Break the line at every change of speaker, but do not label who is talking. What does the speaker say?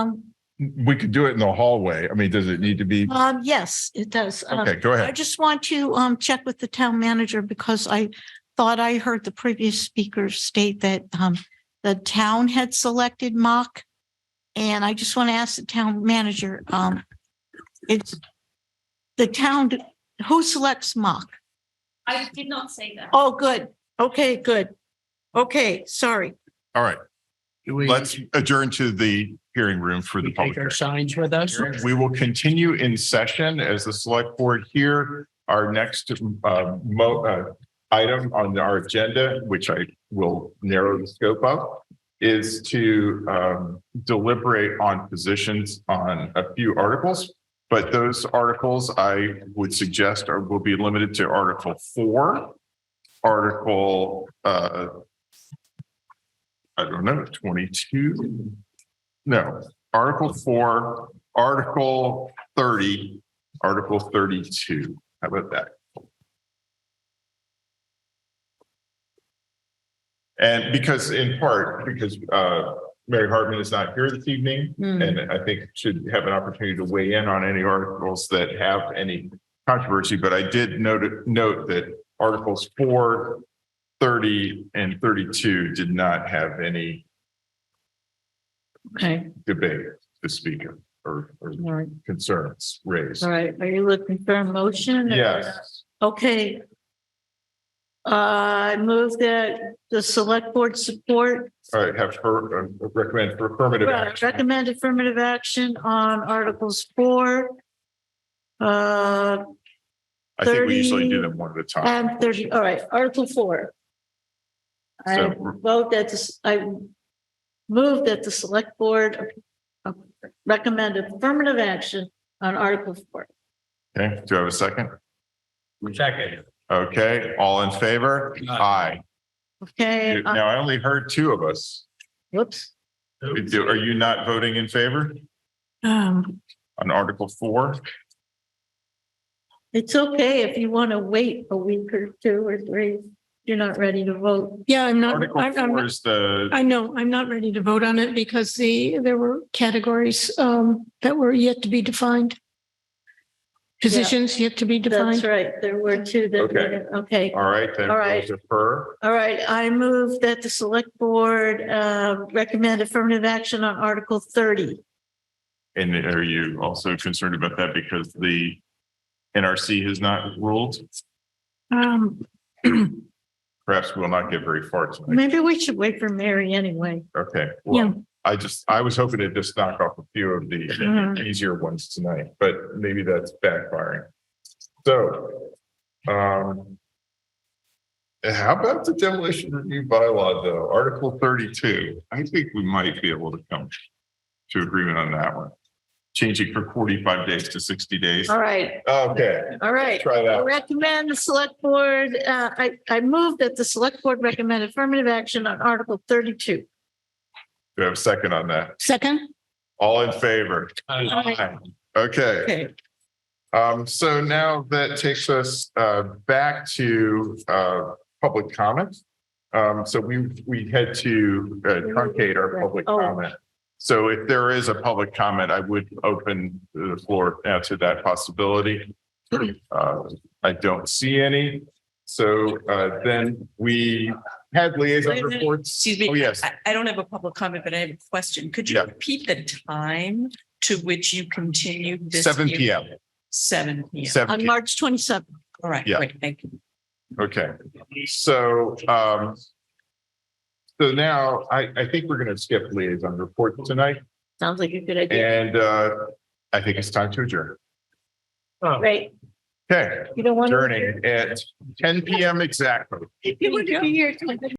Um,
We could do it in the hallway. I mean, does it need to be?
um, yes, it does. Um,
Okay, go
I
ahead.
just want to um check with the town manager because I thought I heard the previous speaker state that um the town had selected mock. And I just want to ask the town manager, um, it's the town, who selects mock?
I did not say that.
Oh, good. Okay, good. Okay, sorry.
All right,
Do we,
let's
do
adjourn to the hearing room for the
we
public.
take our signs with us?
hearing. We will continue in session as the select board here. Our next uh, mo- uh, item on our agenda, which I will narrow the scope of, is to um, deliberate on positions on a few articles. But those articles I would suggest are, will be limited to Article Four, Article, uh, I don't know, twenty-two? No, Article Four, Article thirty, Article thirty-two. How about that? And because in part, because uh, Mary Hartman is not here this evening,
Hmm,
and I think should have an opportunity to weigh in on any articles that have any controversy, but I did note, note that Articles four, thirty, and thirty-two did not have any
Okay,
debate to speak of or, or
all right,
concerns raised.
All right, are you looking for a motion?
Yes,
Okay. Uh, I move that the select board support, uh,
all right, have her, uh, recommend for affirmative action.
recommend affirmative action on Articles four. Uh,
I think we usually do them one at a time.
and thirty, all right, Article four. I
So-
vote that, this- I move that the select board uh, recommend affirmative action on Article four.
Okay, do I have a second?
Second.
Okay, all in favor? Aye.
Okay, uh,
Now, I only heard two of us.
whoops.
Do- Are you not voting in favor
Um,
on Article four?
it's okay if you want to wait a week or two or three. You're not ready to vote.
Yeah, I'm not,
Article
I'm, I'm,
four
not-
is the,
I know, I'm not ready to vote on it because the, there were categories um, that were yet to be defined. Positions yet to be
That's
defined.
right. There were two
Okay.
that, okay.
all right, then
All
we'll
right.
defer.
All right, I move that the select board uh, recommend affirmative action on Article thirty.
And are you also concerned about that because the NRC has not ruled?
Um,
Perhaps we'll not get very far tonight.
Maybe we should wait for Mary anyway.
Okay. well,
Yeah,
I just, I was hoping to just knock off a few of the
Mhm.
Mm-hmm.
easier ones tonight, but maybe that's backfiring. So, um, how about the demolition review bylaw though, Article thirty-two? I think we might be able to come to agreement on that one. Changing from forty-five days to sixty days.
All right,
Okay,
all right.
try
I
that.
Recommend the select board, uh, I, I move that the select board recommend affirmative action on Article thirty-two.
Do I have a second on that?
second,
All in favor?
Uh,
Aye.
Okay.
Okay.
Um, so now that takes us uh back to uh public comment. Um, so we we had to uh, truncate our public
Oh.
comment. So if there is a public comment, I would open the floor now to that possibility. Uh, I don't see any. So uh then we had liaison
Wait a minute.
reports.
Excuse me.
Oh, yes.
I, I don't have a public comment, but I have a question. Could you
Yeah.
repeat the time to which you continued this?
Seven
hearing?
P M,
Seven P M.
seven
On
P M.
March twenty-seventh.
All right,
Yeah.
great, thank you.
Okay, so, um, so now I, I think we're going to skip liaison report tonight
Sounds like a good idea.
and, uh, I think it's time to adjourn.
oh.
Great.
Okay,
You don't want to.
adjourning at ten PM exactly.
You want to be here. till-